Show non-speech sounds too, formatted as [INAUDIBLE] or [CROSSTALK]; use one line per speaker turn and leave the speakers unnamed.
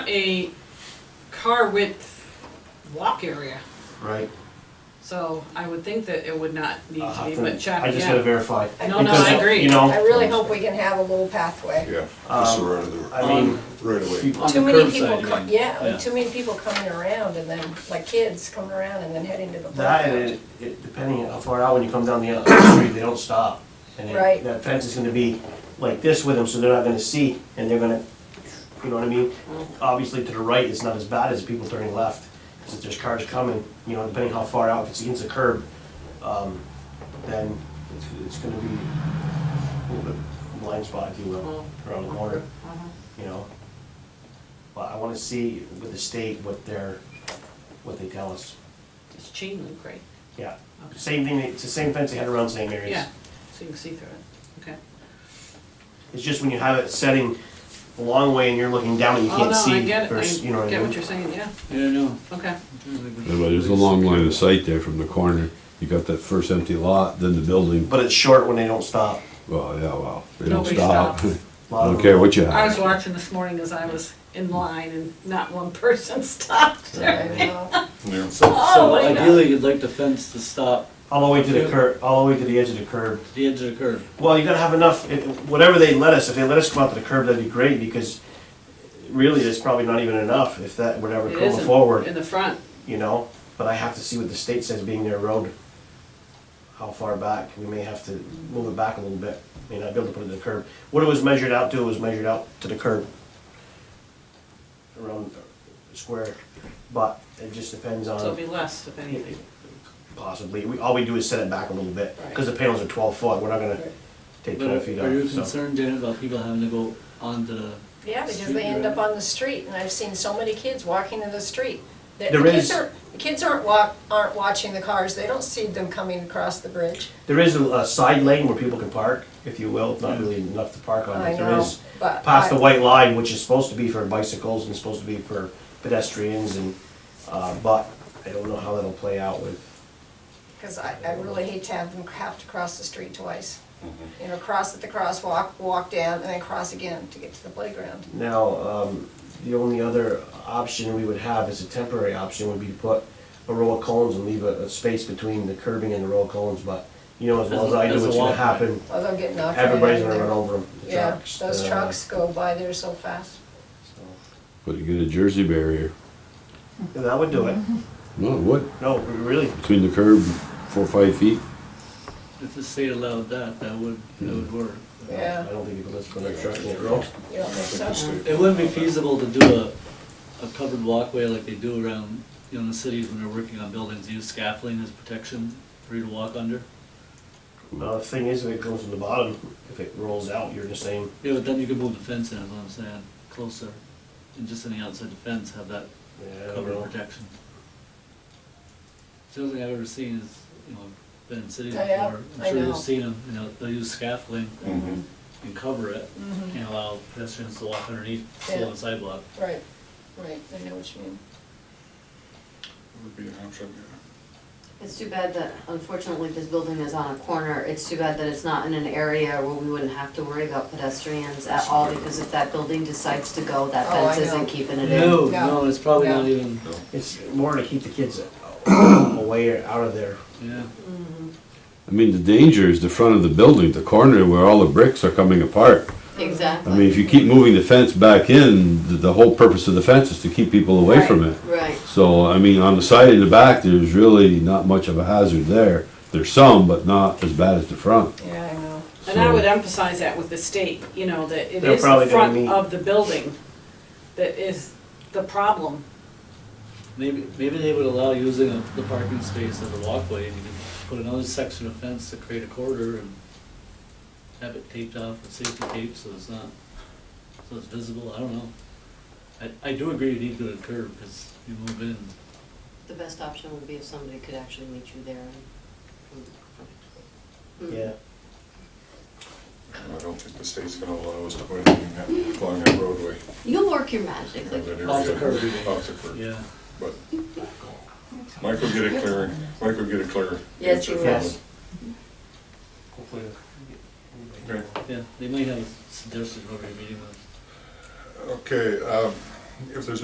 a car width walk area,
right?
so I would think that it would not need
I'll
to be,
have
but
to-
check,
I just gotta
yeah.
verify.
No, no,
Because,
I agree.
You know,
I really hope we can have a little pathway.
Yeah, just the right of the,
I
Um,
mean,
right of way.
she-
Too many people, co-
Yeah.
yeah, too many people coming around and then, like kids coming around and then heading to the
that,
playground.
and it- it- depending on how far out, when you come down the other street, they don't stop. And it-
Right.
that fence is gonna be like this with them, so they're not gonna see, and they're gonna, you know what I mean?
Mm.
Obviously, to the right, it's not as bad as people turning left, because if there's cars coming, you know, depending how far out, if it's against the curb, um, then it's, it's gonna be a little bit blind spot, if you will,
Mm.
around the corner,
Uh-huh.
you know? But I wanna see with the state what they're, what they tell us.
It's chain link, right?
Yeah,
Okay.
same thing, it's the same fence they had around same areas.
Yeah, so you can see through it, okay.
It's just when you have it setting a long way and you're looking down and you
Oh,
can't
no,
see.
I get it,
versus- you know
I get
mean?
what you're saying, yeah,
I don't know.
okay.
Yeah, but there's a long line of sight there from the corner. You got that first empty lot, then the building.
But it's short when they don't stop.
Well, yeah, well, they don't
Nobody
stop.
stops.
A
[LAUGHS] I
lot of
don't
them-
care what you
I was
have.
watching this morning as I was in line and not one [LAUGHS] person stopped there. Oh,
I know.
Yeah.
So,
Oh,
so
my God.
ideally, you'd like the fence to stop
All the way to the curb, all the way to the edge of the curb.
the edge of the curb.
Well, you gotta have enough, it- whatever they let us, if they let us come out to the curb, that'd be great because really, it's probably not even enough if that would ever
It
go
isn't In
forward,
the front,
you know? But I have to see what the state says being their road. How far back, we may have to move it back a little bit, may not be able to put it to the curb. What it was measured out to was measured out to the curb. Around the square, but it just depends on.
so it'll be less if anything.
Possibly, we, all we do is set it back a little bit, because the panels are twelve foot, we're not gonna take
But
twelve feet
are you
off, so.
concerned, Janet, about people having to go onto the?
Yeah, because they end up on the street and I've seen so many kids walking to the street. The the
There
kids
is-
aren't, the kids aren't walk, aren't watching the cars, they don't see them coming across the bridge.
There is a, a side lane where people can park, if you will, not really enough to park on,
I
but there
know,
is.
but.
Past the
I-
white line, which is supposed to be for bicycles and supposed to be for pedestrians and, uh, but I don't know how that'll play out with,
Because I, I really hate to have them have to cross the street twice.
Mm-hmm.
You know, cross at the crosswalk, walk down, and then cross again to get to the playground.
Now, um, the only other option we would have as a temporary option would be to put a row of cones and leave a, a space between the curbing and the row of cones, but you know as well as I do
As a- as a
what's gonna
walkway.
happen.
Although they'll get knocked right out of
Everybody's gonna
there.
run over them.
Yeah,
uh,
uh,
those trucks go by there so fast.
But you get a Jersey barrier.
That would do it.
No, what?
No, really,
Between the curb, four, or five feet.
If the state allowed that, that would, that would work.
I
Yeah,
don't think people listen to trucking at all.
you don't think so?
It wouldn't be feasible to do a, a covered walkway like they do around, you know, in the cities when they're working on buildings, use scaffolding as protection for you to walk under.
Uh, the thing is, if it comes from the bottom, if it rolls out, you're the same.
Yeah, but then you could move the fence in, is what I'm saying, closer, and just on the outside the fence, have that
Yeah, I don't
covered
know.
protection. It's The only thing I've ever seen is, you know, I've been in cities
Oh, yeah?
before,
I
I'm sure
know.
you've seen them, you know, they'll use scaffolding
Mhm.
and cover it,
Mm-hmm.
and allow pedestrians to walk underneath, still on the sidewalk.
Right, right, I know what you mean.
Would be an option, yeah.
It's too bad that unfortunately this building is on a corner. It's too bad that it's not in an area where we wouldn't have to worry about pedestrians at all because if that building decides to go, that
Oh, I
fence
know.
isn't keeping it in.
No,
No.
no, it's probably
No.
not even,
It's more to keep the kids away or out of there.
yeah.
I mean, the danger is the front of the building, the corner where all the bricks are coming apart. I
Exactly.
mean, if you keep moving the fence back in, the, the whole purpose of the fence is to keep people away from it.
Right.
So, I mean, on the side and the back, there's really not much of a hazard there. There's some, but not as bad as the front.
Yeah, I know.
And I would
So-
emphasize that with the state, you know, that it
They're
is the
probably gonna
front
meet.
of the building that is the problem.
Maybe, maybe they would allow using a- the parking space as a walkway, and you could put another section of fence to create a corridor and have it taped off with safety tape, so it's not, so it's visible, I don't know. I, I do agree you need to go to the curb, because you move in,
The best option would be if somebody could actually meet you there and. Mm.
Yeah.
I don't think the state's gonna allow us to put anything that- along that roadway.
You'll work your magic,
around
like,
that
Off the
area.
curb.
Off the curb,
yeah.
but Mike will get it clear, Mike will get it clear.
Yes,
answer
he
from
will.
him.
Hopefully.
Okay.
Yeah, they might have suggested whoever you're meeting with.
Okay, um, if there's